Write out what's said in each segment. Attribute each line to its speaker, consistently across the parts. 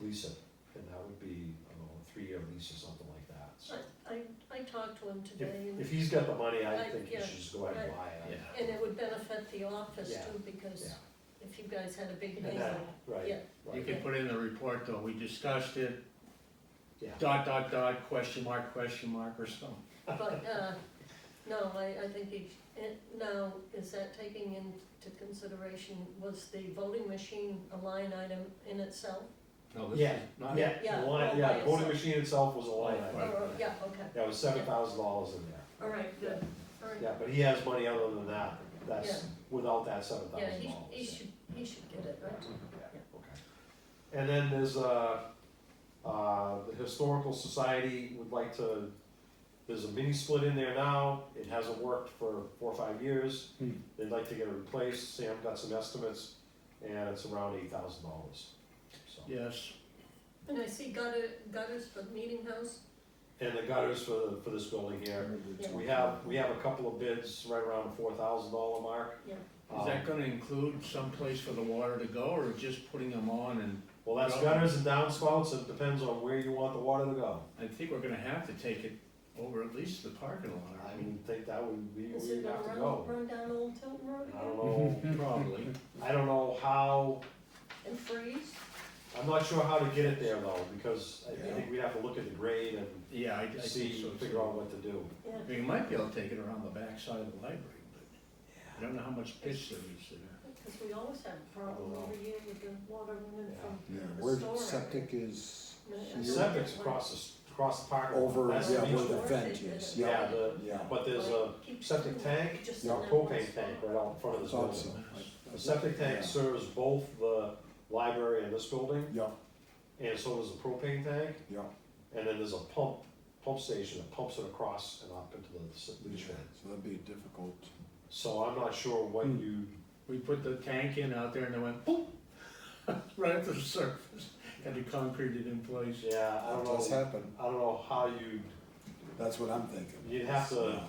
Speaker 1: Lisa, and that would be, I don't know, a three-year lease or something like that, so.
Speaker 2: I, I, I talked to him today
Speaker 1: If,
Speaker 2: and,
Speaker 1: if he's got the money, I
Speaker 2: I-
Speaker 1: think he
Speaker 2: yeah,
Speaker 1: should just go ahead and buy it.
Speaker 2: and it would benefit the office
Speaker 1: Yeah,
Speaker 2: too, because
Speaker 1: Yeah,
Speaker 2: if you guys had a big
Speaker 1: and
Speaker 2: neighbor,
Speaker 1: that, right,
Speaker 2: Yeah.
Speaker 3: You
Speaker 1: right,
Speaker 3: can put in the report though, we discussed it,
Speaker 1: yeah.
Speaker 3: dot, dot, dot, question mark, question mark, or something.
Speaker 2: but, uh, no, I, I think he, and now, is that taking into consideration, was the voting machine a line item in itself?
Speaker 3: No, this is
Speaker 1: Yeah,
Speaker 3: not-
Speaker 1: yeah,
Speaker 2: Yeah,
Speaker 1: the line,
Speaker 2: all
Speaker 1: yeah,
Speaker 2: by
Speaker 1: the voting
Speaker 2: itself.
Speaker 1: machine itself was a line item,
Speaker 3: Right.
Speaker 2: Or, yeah, okay,
Speaker 1: yeah, it was seven thousand dollars in there.
Speaker 2: all right, good, all right.
Speaker 1: Yeah, but he has money other than that, that's,
Speaker 2: Yeah.
Speaker 1: without that seven
Speaker 2: Yeah,
Speaker 1: thousand
Speaker 2: he,
Speaker 1: dollars.
Speaker 2: he should, he should get it, right?
Speaker 1: Okay. And then there's, uh, uh, the Historical Society would like to, there's a mini split in there now, it hasn't worked for four or five years.
Speaker 3: Hmm.
Speaker 1: They'd like to get it replaced, Sam got some estimates, and it's around eight thousand dollars, so.
Speaker 3: Yes,
Speaker 2: And I see gutter, gutters for the meeting house,
Speaker 1: And the gutters for, for this building here,
Speaker 2: Yeah.
Speaker 1: we have, we have a couple of bids right around the four thousand dollar mark.
Speaker 2: Yeah.
Speaker 3: is that
Speaker 1: Um,
Speaker 3: gonna include someplace for the water to go, or just putting them on and,
Speaker 1: Well, that's gutters and downspouts, it depends on where you want the water to go.
Speaker 3: I think we're gonna have to take it over at least the parking lot,
Speaker 1: I
Speaker 3: I mean,
Speaker 1: would think that would be where
Speaker 2: is it
Speaker 1: you'd
Speaker 2: gonna
Speaker 1: have to
Speaker 2: run,
Speaker 1: go.
Speaker 2: run down Old Tilton Road
Speaker 1: I don't
Speaker 2: again
Speaker 1: know,
Speaker 3: probably.
Speaker 1: I don't know how,
Speaker 2: and freeze?
Speaker 1: I'm not sure how to get it there though, because I
Speaker 3: Yeah.
Speaker 1: think we'd have to look at the grade and
Speaker 3: Yeah, I, I think
Speaker 1: see,
Speaker 3: so
Speaker 1: figure out
Speaker 3: too.
Speaker 1: what to do.
Speaker 2: Yeah,
Speaker 3: I mean, You might be able to take it around the backside of the library, but I don't know how much pitch there is there.
Speaker 2: because we always have a problem over here with the water running from.
Speaker 4: Yeah,
Speaker 2: the
Speaker 4: where
Speaker 2: store.
Speaker 4: septic is
Speaker 1: The
Speaker 2: Yeah.
Speaker 4: here,
Speaker 1: septic's across the, s- across the park.
Speaker 4: Over,
Speaker 1: That's
Speaker 4: yeah,
Speaker 1: the
Speaker 4: where
Speaker 1: issue.
Speaker 4: the vent is, yeah,
Speaker 1: Yeah, the,
Speaker 4: yeah.
Speaker 1: but there's a
Speaker 2: Keeps
Speaker 1: septic
Speaker 2: doing
Speaker 1: tank,
Speaker 2: it, just
Speaker 1: a
Speaker 2: in that one
Speaker 1: propane
Speaker 2: spot.
Speaker 1: tank right out in front of
Speaker 4: I
Speaker 1: this
Speaker 4: thought
Speaker 1: building.
Speaker 4: so.
Speaker 1: The septic tank serves both the library and this building,
Speaker 4: Yeah,
Speaker 1: and so does the propane tank.
Speaker 4: yeah.
Speaker 1: And then there's a pump, pump station that pumps it across and up into the s- leach
Speaker 4: So
Speaker 1: field.
Speaker 4: that'd be difficult.
Speaker 1: So I'm not sure what
Speaker 4: Hmm.
Speaker 1: you,
Speaker 3: We put the tank in out there and it went boom, right up to the surface, had to concrete it in place.
Speaker 1: yeah, I don't
Speaker 4: It does
Speaker 1: know,
Speaker 4: happen,
Speaker 1: I don't know how you,
Speaker 4: that's what I'm thinking.
Speaker 1: You'd have to-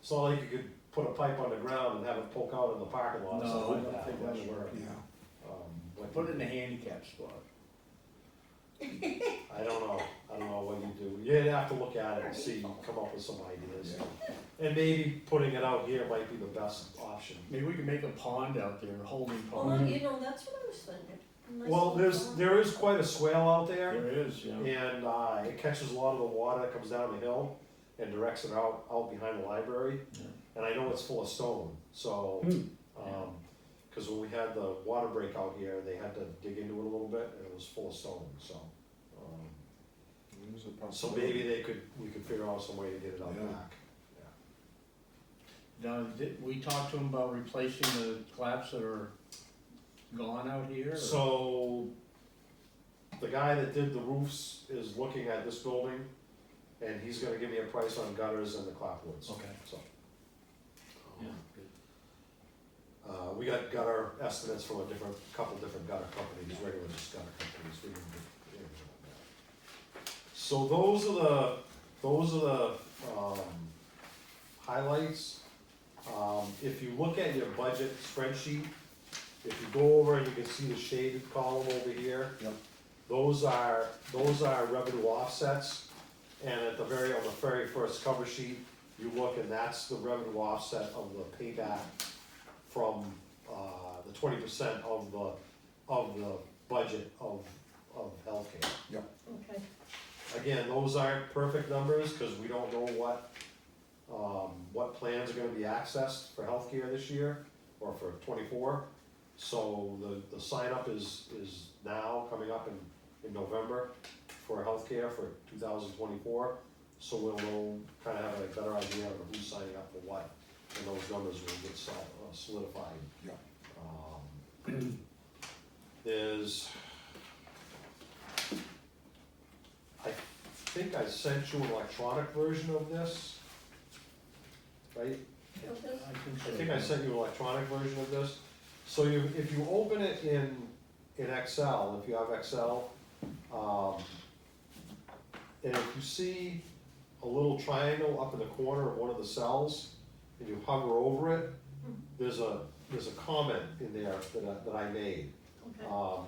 Speaker 1: it's not like you could put a pipe underground and have it poke out in the parking lot or
Speaker 3: No,
Speaker 1: something
Speaker 3: I
Speaker 1: like
Speaker 3: don't
Speaker 1: that.
Speaker 3: think
Speaker 1: I'm not
Speaker 3: that'd
Speaker 1: sure.
Speaker 3: work.
Speaker 4: Yeah,
Speaker 1: Um, what
Speaker 3: Put
Speaker 1: you-
Speaker 3: it in a handicap spot.
Speaker 1: I don't know, I don't know what you do, you'd have to look at it and see, come up with some ideas. And maybe putting it out here might be the best option.
Speaker 3: Maybe we can make a pond out there, a holding
Speaker 2: Well,
Speaker 3: pond.
Speaker 2: you know, that's what I was thinking. A nice
Speaker 1: Well,
Speaker 2: little
Speaker 1: there's,
Speaker 2: pond.
Speaker 1: there is quite a swale out there.
Speaker 3: There is, yeah.
Speaker 1: And uh, it catches a lot of the water that comes down the hill and directs it out, out behind the library.
Speaker 3: Yeah.
Speaker 1: And I know it's full of stone, so,
Speaker 4: Hmm.
Speaker 1: um, cause when we had the water break out here, they had to dig into it a little bit and it was full of stone, so. um,
Speaker 4: there's a
Speaker 1: So
Speaker 4: possibility.
Speaker 1: maybe they could, we could figure out some way to get it out
Speaker 4: Yeah.
Speaker 1: back.
Speaker 3: Now, did, we talked to him about replacing the claps that are gone out here? or-
Speaker 1: So, the guy that did the roofs is looking at this building and he's gonna give me a price on gutters and the clapboards,
Speaker 3: Okay,
Speaker 1: so.
Speaker 3: yeah, good.
Speaker 1: Uh, we got gutter estimates from a different, couple different gutter companies, regular just gutter companies, we didn't do anything on that. So those are the, those are the, um, highlights. Um, if you look at your budget spreadsheet, if you go over and you can see the shaded column over here.
Speaker 4: Yep.
Speaker 1: Those are, those are revenue offsets, and at the very, on the very first cover sheet, you look and that's the revenue offset of the payback from, uh, the twenty percent of the, of the budget of, of healthcare.
Speaker 2: Okay,
Speaker 1: Again, those aren't perfect numbers, cause we don't know what, um, what plans are gonna be accessed for healthcare this year, or for twenty-four. So the, the sign up is, is now, coming up in, in November for healthcare for two thousand twenty-four. So we'll, know kinda have a better idea of who's signing up for what, and those numbers will get sol- uh, solidified.
Speaker 4: Yeah.
Speaker 1: Um, There's. I think I sent you an electronic version of this. Right?
Speaker 2: okay,
Speaker 3: I think
Speaker 1: I
Speaker 3: so.
Speaker 1: think I sent you an electronic version of this. So you, if you open it in, in Excel, if you have Excel, um, and if you see a little triangle up in the corner of one of the cells, and you hover over it, there's a, there's a comment in there that I, that I made.
Speaker 2: okay.
Speaker 1: Um,